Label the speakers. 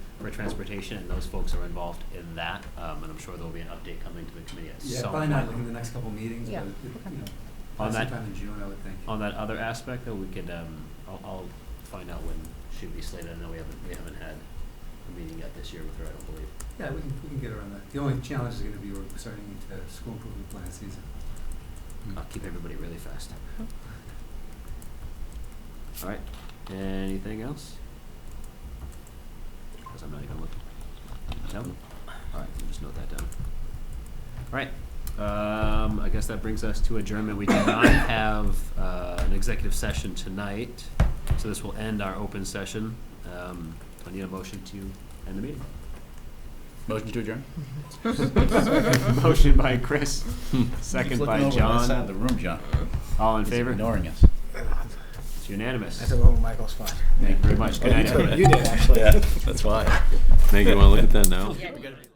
Speaker 1: for transportation, and those folks are involved in that. Um, and I'm sure there'll be an update coming to the committee at
Speaker 2: Yeah,
Speaker 1: some
Speaker 2: probably
Speaker 1: point.
Speaker 2: not like in the next couple meetings, but,
Speaker 3: Yeah,
Speaker 2: it-
Speaker 3: okay.
Speaker 2: you know,
Speaker 1: On
Speaker 2: probably
Speaker 1: that-
Speaker 2: sometime in June, I would think.
Speaker 1: On that other aspect, though, we could, um, I'll, I'll find out when she'd be slated. I know we haven't, we haven't had a meeting yet this year with her, I don't believe.
Speaker 2: Yeah, we can, we can get around that. The only challenge is gonna be we're starting into school improvement plan season.
Speaker 1: I'll keep everybody really fast. All right, anything else? Because I'm not even looking. No? All right, we'll just note that down. All right, um, I guess that brings us to adjournment. We do not have, uh, an executive session tonight, so this will end our open session. Um, I need a motion to end the meeting.
Speaker 4: Motion to adjourn?
Speaker 1: Motion by Chris, second
Speaker 4: Keep
Speaker 1: by
Speaker 4: looking over on that side
Speaker 1: John.
Speaker 4: of the room, John.
Speaker 1: All in
Speaker 4: He's
Speaker 1: favor?
Speaker 4: Ignoring us.
Speaker 1: It's unanimous.
Speaker 5: I took over Michael's spot.
Speaker 1: Thank you very much. Good night, everybody.
Speaker 5: You did, actually.
Speaker 4: Yeah, that's why.
Speaker 6: Now you want to look at that now?